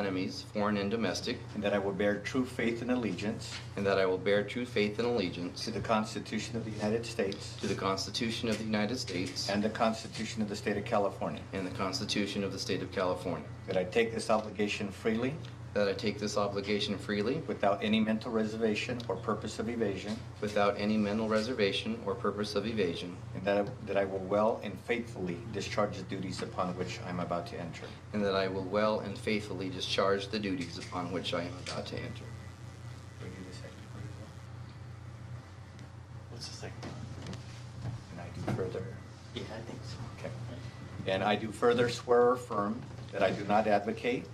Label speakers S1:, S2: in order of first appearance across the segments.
S1: enemies, foreign and domestic,
S2: and that I will bear true faith and allegiance
S1: and that I will bear true faith and allegiance
S2: to the Constitution of the United States
S1: to the Constitution of the United States
S2: and the Constitution of the State of California,
S1: and the Constitution of the State of California,
S2: that I take this obligation freely
S1: that I take this obligation freely
S2: without any mental reservation or purpose of evasion,
S1: without any mental reservation or purpose of evasion,
S2: and that I- that I will well and faithfully discharge the duties upon which I am about to enter.
S1: and that I will well and faithfully discharge the duties upon which I am about to enter.
S3: What's the second?
S2: And I do further.
S3: Yeah, I think so.
S2: Okay. And I do further swear or affirm that I do not advocate,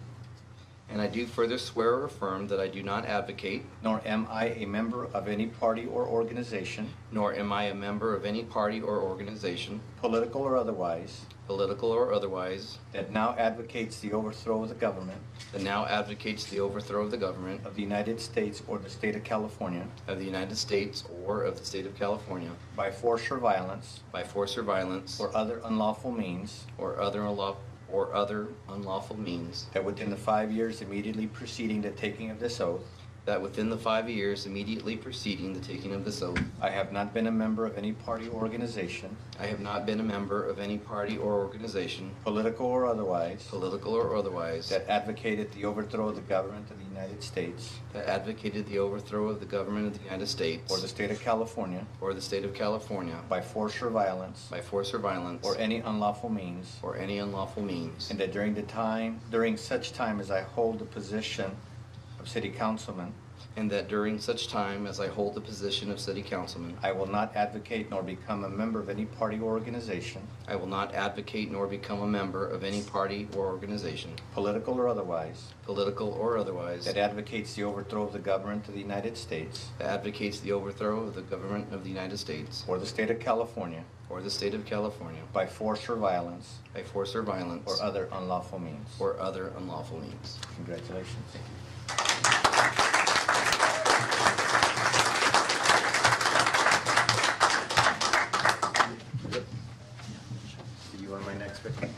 S1: And I do further swear or affirm that I do not advocate,
S2: nor am I a member of any party or organization,
S1: nor am I a member of any party or organization,
S2: political or otherwise,
S1: political or otherwise,
S2: that now advocates the overthrow of the government
S1: that now advocates the overthrow of the government
S2: of the United States or the state of California
S1: of the United States or of the State of California
S2: by force or violence
S1: by force or violence
S2: or other unlawful means,
S1: or other unlawful, or other unlawful means,
S2: that within the five years immediately preceding the taking of this oath,
S1: that within the five years immediately preceding the taking of this oath,
S2: I have not been a member of any party or organization,
S1: I have not been a member of any party or organization,
S2: political or otherwise,
S1: political or otherwise,
S2: that advocated the overthrow of the government of the United States
S1: that advocated the overthrow of the government of the United States
S2: or the state of California
S1: or the State of California
S2: by force or violence
S1: by force or violence
S2: or any unlawful means,
S1: or any unlawful means,
S2: and that during the time, during such time as I hold the position of city councilman,
S1: and that during such time as I hold the position of city councilman,
S2: I will not advocate nor become a member of any party or organization,
S1: I will not advocate nor become a member of any party or organization,
S2: political or otherwise,
S1: political or otherwise,
S2: that
S1: that
S2: advocates the overthrow of the government of the United States
S1: advocates the overthrow of the government of the United States
S2: or the state of California
S1: or the State of California
S2: by force or violence
S1: by force or violence
S2: or other unlawful means.
S1: or other unlawful means.
S2: Congratulations. You want my next bit?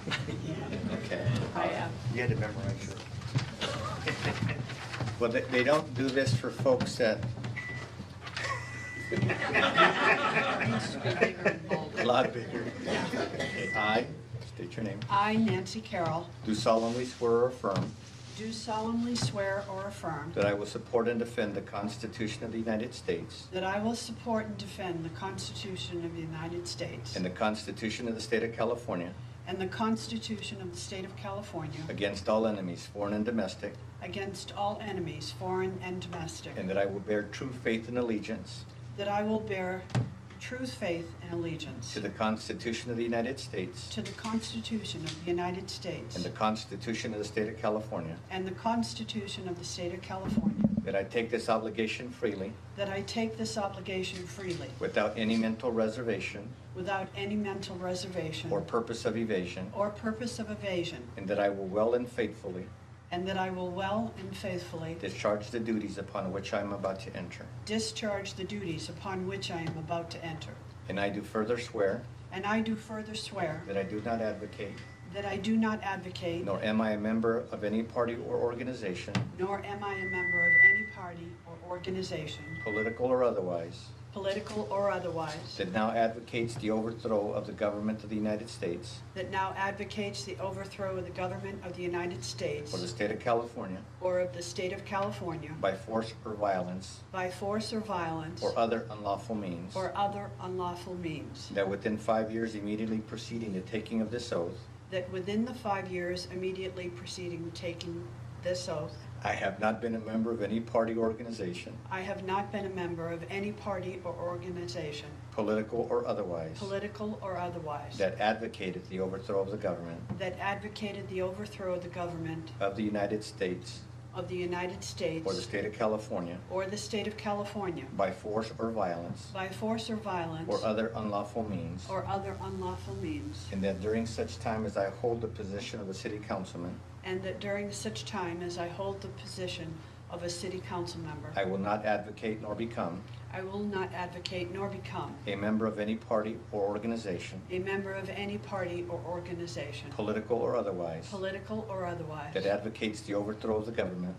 S2: Okay.
S4: I am.
S2: You had to memorize it. Well, they, they don't do this for folks that. A lot bigger. I, state your name,
S4: I, Nancy Carroll,
S2: do solemnly swear or affirm
S4: do solemnly swear or affirm
S2: That I will support and defend the Constitution of the United States
S4: that I will support and defend the Constitution of the United States
S2: and the Constitution of the State of California
S4: and the Constitution of the State of California
S2: against all enemies, foreign and domestic,
S4: against all enemies, foreign and domestic,
S2: and that I will bear true faith and allegiance
S4: that I will bear true faith and allegiance
S2: to the Constitution of the United States
S4: to the Constitution of the United States
S2: and the Constitution of the State of California,
S4: and the Constitution of the State of California,
S2: that I take this obligation freely
S4: that I take this obligation freely
S2: without any mental reservation
S4: without any mental reservation
S2: or purpose of evasion,
S4: or purpose of evasion,
S2: and that I will well and faithfully
S4: And that I will well and faithfully
S2: discharge the duties upon which I am about to enter.
S4: discharge the duties upon which I am about to enter.
S2: And I do further swear
S4: And I do further swear
S2: that I do not advocate
S4: that I do not advocate,
S2: Nor am I a member of any party or organization,
S4: nor am I a member of any party or organization,
S2: political or otherwise,
S4: political or otherwise,
S2: that now advocates the overthrow of the government of the United States
S4: that now advocates the overthrow of the government of the United States
S2: or the state of California
S4: or of the state of California
S2: by force or violence
S4: by force or violence
S2: or other unlawful means,
S4: or other unlawful means,
S2: that within five years immediately preceding the taking of this oath,
S4: that within the five years immediately preceding taking this oath,
S2: I have not been a member of any party or organization,
S4: I have not been a member of any party or organization,
S2: political or otherwise,
S4: political or otherwise,
S2: that advocated the overthrow of the government
S4: that advocated the overthrow of the government
S2: of the United States
S4: of the United
S2: or the
S4: States
S2: state of California
S4: or the state of California
S2: by force or violence
S4: by force or violence
S2: or other unlawful means,
S4: or other unlawful means,
S2: and that during such time as I hold the position of a city councilman,
S4: and that during such time as I hold the position of a city council member.
S2: I will not advocate nor become
S4: I will not advocate nor become
S2: a member of any party or organization,
S4: a member of any party or organization,
S2: political or otherwise,
S4: political or otherwise.
S2: that advocates the overthrow of the government